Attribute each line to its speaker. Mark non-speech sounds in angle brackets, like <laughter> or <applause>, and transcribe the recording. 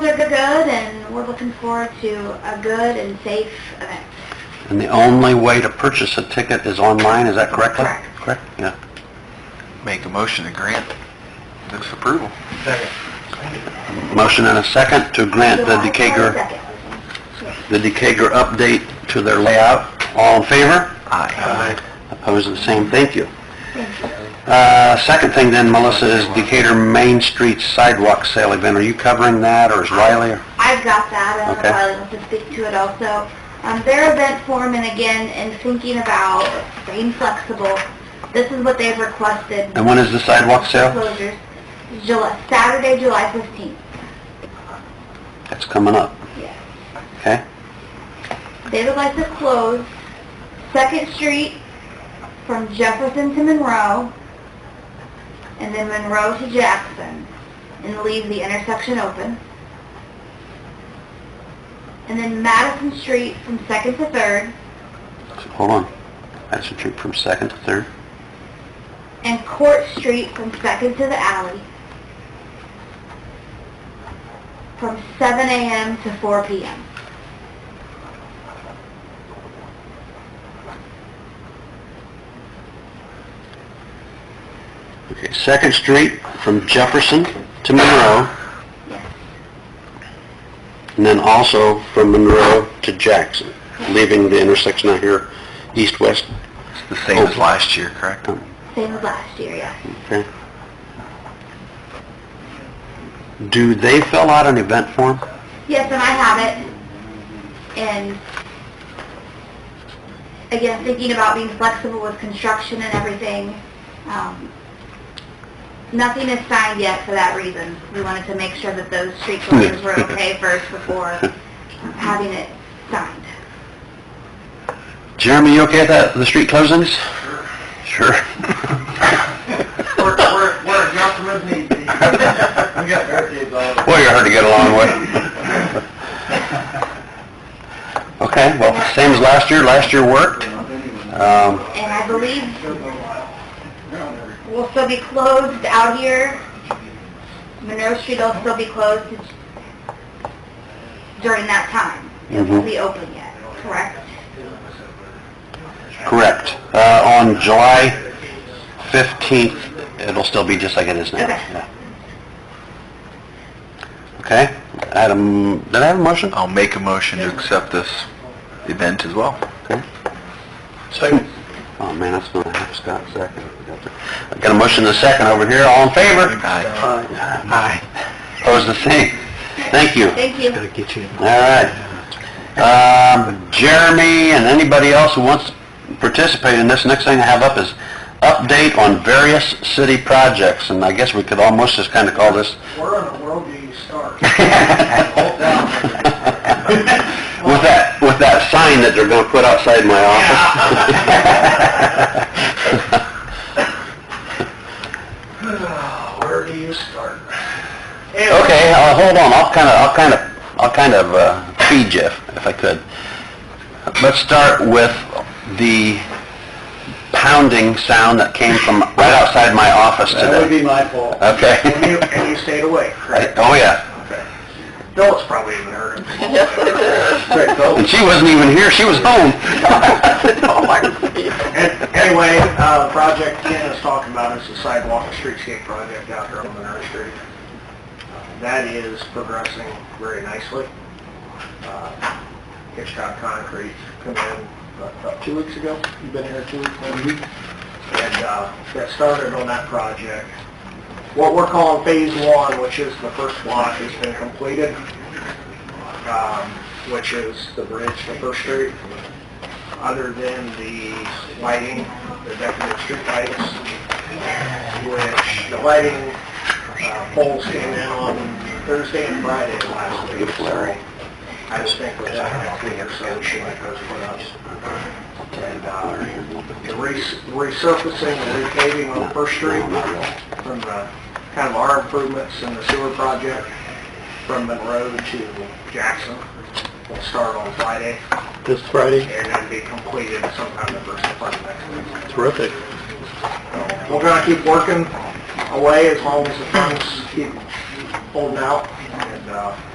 Speaker 1: looking for to a good and safe event.
Speaker 2: And the only way to purchase a ticket is online, is that correct?
Speaker 1: Correct.
Speaker 2: Correct, yeah.
Speaker 3: Make a motion to grant this approval.
Speaker 2: Motion and a second to grant the
Speaker 1: July
Speaker 2: Decatur,
Speaker 1: 22nd.
Speaker 2: the Decatur update to their layout. All in favor?
Speaker 3: Aye.
Speaker 2: Opposed, the same, thank you. Uh, second thing then, Melissa, is Decatur Main Street Sidewalk Sale Event. Are you covering that, or is Riley? or-
Speaker 1: I've got that, and
Speaker 2: Okay.
Speaker 1: Riley wants to speak to it also. Um, their event form, and again, in thinking about being flexible, this is what they've requested.
Speaker 2: And when is the sidewalk sale?
Speaker 1: Closures, July, Saturday, July 15th.
Speaker 2: That's coming up.
Speaker 1: Yes.
Speaker 2: Okay?
Speaker 1: They would like to close Second Street from Jefferson to Monroe, and then Monroe to Jackson, and leave the intersection open. And then Madison Street from Second to Third,
Speaker 2: So, Hold on. That's a trip from second to third.
Speaker 1: and Court Street from Second to the alley, from 7 a.m. to 4 p.m.
Speaker 2: Okay, Second Street from Jefferson to Monroe,
Speaker 1: Yes,
Speaker 2: and then also from Monroe to Jackson, leaving the intersection out here east-west.
Speaker 3: It's the same as last year, correct?
Speaker 1: same as last year, yes.
Speaker 2: Okay. Do they fill out an event form?
Speaker 1: Yes, and I have it. And again, thinking about being flexible with construction and everything, um, nothing is signed yet for that reason. We wanted to make sure that those street closures were okay first before having it signed.
Speaker 2: Jeremy, you okay with that, the street closings? <laughs> Sure.
Speaker 4: <laughs> We're, we're, we're a jump from his knees. We got barricades all over.
Speaker 2: Well, you're hard to get along
Speaker 4: <laughs>
Speaker 2: with. Okay, well, same as last year, last year worked. Um,
Speaker 1: And I believe will still be closed out here. Monroe Street will still be closed during that time. It won't be open yet, correct?
Speaker 2: Correct. Uh, on July 15th, it'll still be just like it is now.
Speaker 1: Okay.
Speaker 2: Yeah. Okay, Adam, did I have a motion?
Speaker 3: I'll make a motion to accept this event as well.
Speaker 2: Okay. Second. Oh, man, that's gonna have Scott second. I got a motion and a second over here, all in favor?
Speaker 3: Aye.
Speaker 2: Aye. Opposed, the same. Thank you.
Speaker 1: Thank you.
Speaker 2: get you. All right. Um, Jeremy and anybody else who wants to participate in this, next thing I have up is update on various city projects, and I guess we could almost just kind of call this,
Speaker 4: Where in the world do you start?
Speaker 3: <laughs>
Speaker 4: Hold down.
Speaker 2: with that, with that sign that they're gonna put outside my office.
Speaker 4: Where do you start?
Speaker 2: Okay, uh, hold on, I'll kind of, I'll kind of, I'll kind of uh, feed you if if I could. Let's start with the pounding sound that came from right outside my office today.
Speaker 4: That would be my fault.
Speaker 2: Okay.
Speaker 4: And you, and you stayed away,
Speaker 2: Right,
Speaker 4: correct?
Speaker 2: Oh, yeah.
Speaker 4: Okay. Phyllis probably even heard it. Right,
Speaker 2: And
Speaker 4: Phyllis.
Speaker 2: she wasn't even here, she was home.
Speaker 4: And- Anyway, uh, the project Ken is talking about is the sidewalk and streetscape project out here on Monroe Street. Uh, That is progressing very nicely. Uh, Hitchcock Concrete come in about- about two weeks ago. You've been here two weeks, maybe? And uh, got started on that project. What we're calling Phase One, which is the first block, has been completed, um, which is the bridge to First Street other than the lighting, the decorative street lights, which the lighting uh, poles came in on Thursday and Friday of last week. Larry. I was thinking that I could have solution that goes for us. And uh, the res- resurfacing and repaving on First Street from the, kind of our improvements in the sewer project from Monroe to Jackson will start on Friday
Speaker 2: <laughs> This Friday,
Speaker 4: and then be completed sometime the first part of next week.
Speaker 2: terrific.
Speaker 4: So We're gonna keep working away as long as the funds keep holding out, and, uh,